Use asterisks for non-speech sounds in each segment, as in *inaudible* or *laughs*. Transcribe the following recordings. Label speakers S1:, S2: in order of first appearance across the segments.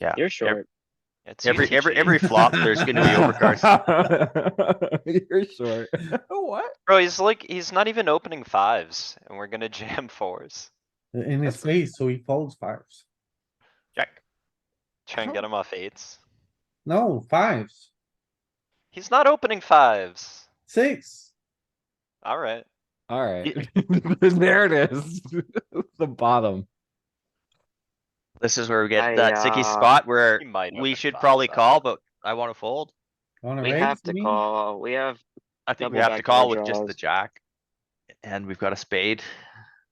S1: Yeah,
S2: You're short.
S1: It's
S3: Every,
S1: easy
S3: every,
S1: cheating.
S3: every flop, there's gonna
S4: *laughs*
S3: be
S5: *laughs*
S3: overcards.
S4: You're short. *laughs* What?
S1: Bro, he's like, he's not even opening fives and we're gonna jam fours.
S5: in his face, so he folds fives.
S3: Check.
S1: Try and get him off eights.
S5: No, fives,
S1: He's not opening fives.
S5: six.
S1: Alright,
S4: Alright. *laughs* There it is. *laughs* The bottom.
S3: This is where we get
S2: I,
S3: that sticky
S2: uh,
S3: spot where
S1: he might.
S3: we
S1: open
S3: should
S1: fives,
S3: probably
S1: though.
S3: call, but I wanna fold.
S5: Wanna
S2: We
S5: raise
S2: have to
S5: me?
S2: call, we have,
S3: I think we
S2: Double
S3: have to
S2: back door
S3: call with just the
S2: draws.
S3: jack. And we've got a spade,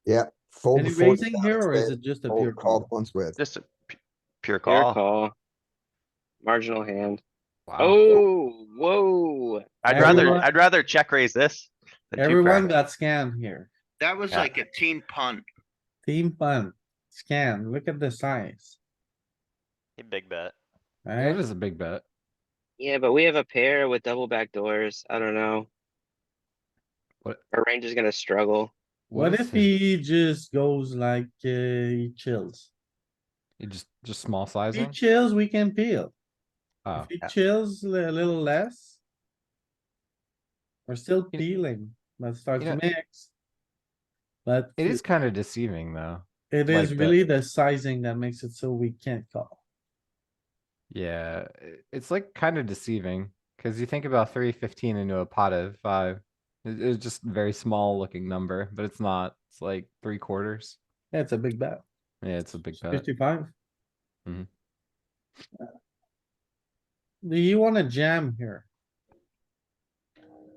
S6: Yeah. Fold
S5: Any
S6: before the
S5: raising
S6: flop
S5: here or is
S6: spade.
S5: it just a
S6: Fold
S5: pure
S6: called
S5: call?
S6: once with.
S3: just a pu- pure
S2: your
S3: call.
S2: call. Marginal hand.
S4: Wow.
S2: Oh, whoa.
S3: I'd rather,
S5: Everyone-
S3: I'd rather check raise this. than two pair.
S5: Everyone got scammed here.
S7: That was
S3: Yeah.
S7: like a teen punt.
S5: Team fun, scan, look at the size,
S1: He big bet.
S4: That
S5: right?
S4: is a big bet.
S2: Yeah, but we have a pair with double back doors. I don't know.
S4: What-
S2: Our range is gonna struggle.
S5: What if he just goes like, uh, he chills?
S4: You just, just small
S5: If he
S4: sizing?
S5: chills, we can peel.
S4: Oh,
S5: If he
S3: yeah.
S5: chills a little less. We're still peeling, let's start
S4: You
S5: to
S4: know-
S5: mix. But
S4: it is kinda deceiving though.
S5: it
S4: like
S5: is
S4: that.
S5: really the sizing that makes it so we can't call.
S4: Yeah, i- it's like kinda deceiving, cuz you think about three fifteen into a pot of five. It, it's just a very small looking number, but it's not. It's like three quarters.
S5: Yeah, it's a big bet,
S4: Yeah, it's a big bet.
S5: fifty-five. Uh,
S4: Mhm.
S5: Do you wanna jam here?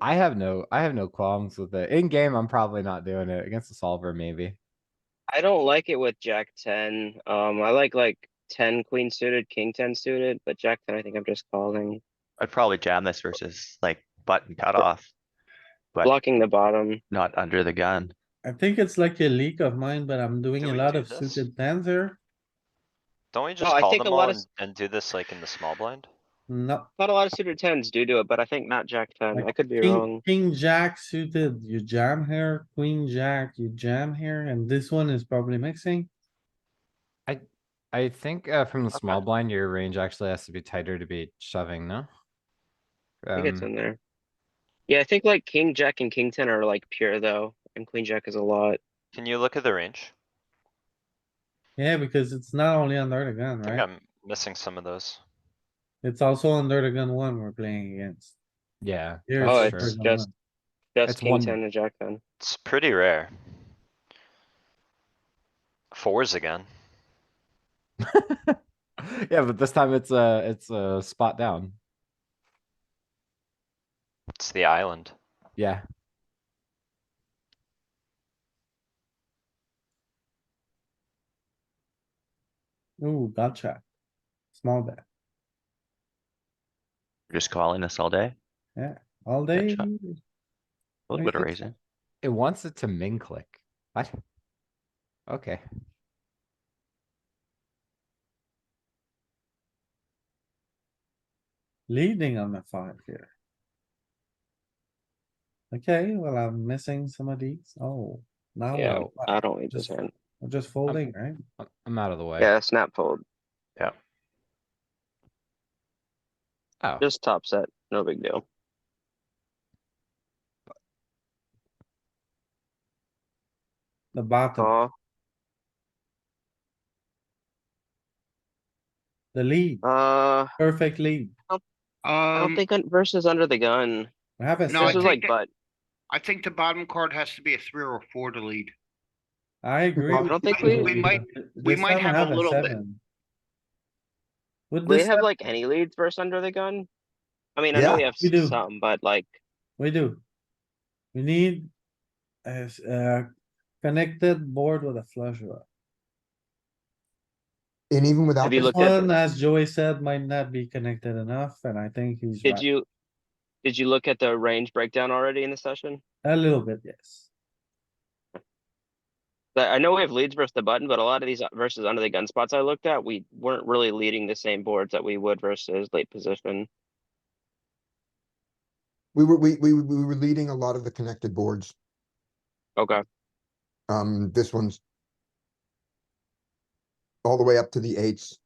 S4: I have no, I have no qualms with it. In game, I'm probably not doing it. Against the solver, maybe.
S2: I don't like it with jack ten. Um, I like like ten queen suited, king ten suited, but jack ten, I think I'm just calling,
S3: I'd probably jam this versus like button cutoff, But-
S2: blocking the bottom.
S3: not under the gun.
S5: I think it's like a leak of mine, but I'm doing
S1: Do
S5: a
S1: we
S5: lot
S1: do
S5: of
S1: this?
S5: suited tens here.
S1: Don't we just
S2: I
S1: call
S2: think a
S1: them
S2: lot
S1: all
S2: of
S1: and
S2: s-
S1: and do this like in the small blind?
S5: No,
S2: Not a lot of suited tens do do it, but I think not jack ten.
S5: Like
S2: I could be
S5: king,
S2: wrong.
S5: king, jack suited, you jam here, queen, jack, you jam here, and this one is probably mixing.
S4: I think uh, from the small blind, your range actually has to be tighter to be shoving, no?
S2: I think it's
S4: Um,
S2: in there. Yeah, I think like king, jack and king ten are like pure though, and queen jack is a lot.
S1: Can you look at the range?
S5: Yeah, because it's not only under the gun,
S1: I think
S5: right?
S1: I'm missing some of those.
S5: It's also under the gun one we're playing against.
S4: yeah.
S5: Here
S2: Oh,
S4: that's
S5: under
S2: it's
S4: true.
S5: the gun
S2: just-
S5: one.
S2: That's
S4: It's
S2: king
S4: one-
S2: ten and jack ten.
S1: It's pretty rare. Fours again.
S4: *laughs* Yeah, but this time it's a, it's a spot down.
S1: It's the island.
S4: Yeah.
S5: Ooh, gotcha. Small bet,
S3: Just calling this all day.
S5: all day.
S3: Gotcha. A little
S5: I
S3: bit of
S5: think
S3: raising.
S4: It wants it to min click. What? Okay.
S5: Leading on the five here. Okay, well, I'm missing some of these. Oh, now.
S2: Yeah, uh, um,
S5: what?
S2: I don't need this
S5: Just-
S2: hand.
S5: I'm just folding, right?
S4: I'm- I'm out of the way.
S2: Yeah, snap fold,
S4: Oh,
S2: just top set, no big deal.
S5: The bottom,
S2: Call,
S5: the lead,
S2: uh, I
S5: perfect lead.
S2: don't
S7: Um,
S2: think un- versus under the gun.
S5: We have a
S7: No, I
S2: This is
S5: seven.
S2: like
S7: think it-
S2: butt.
S7: I think the bottom card has to be a three or a four to lead.
S5: I agree.
S2: I
S5: with
S2: don't
S5: you.
S2: think we-
S7: We might- we
S5: This
S7: might
S5: time
S7: have a little bit.
S5: seven. With
S2: Do we
S5: this,
S2: have
S5: time,
S2: like any leads versus under the gun? I mean, I know
S6: Yeah,
S2: we have
S5: we do.
S2: some, but like,
S5: we do. We need a, s- a connected board with a flush draw.
S6: And even without.
S2: Have you
S6: the
S2: looked at
S5: One, as Joey said, might not be connected enough, and I think he's
S2: did
S5: right.
S2: you, did you look at the range breakdown already in the session?
S5: A little bit, yes.
S2: But I know we have leads versus the button, but a lot of these uh, versus under the gun spots I looked at, we weren't really leading the same boards that we would versus late position.
S6: We were, we, we, we were leading a lot of the connected boards.
S2: Okay,
S6: Um, this one's all the way up to the eights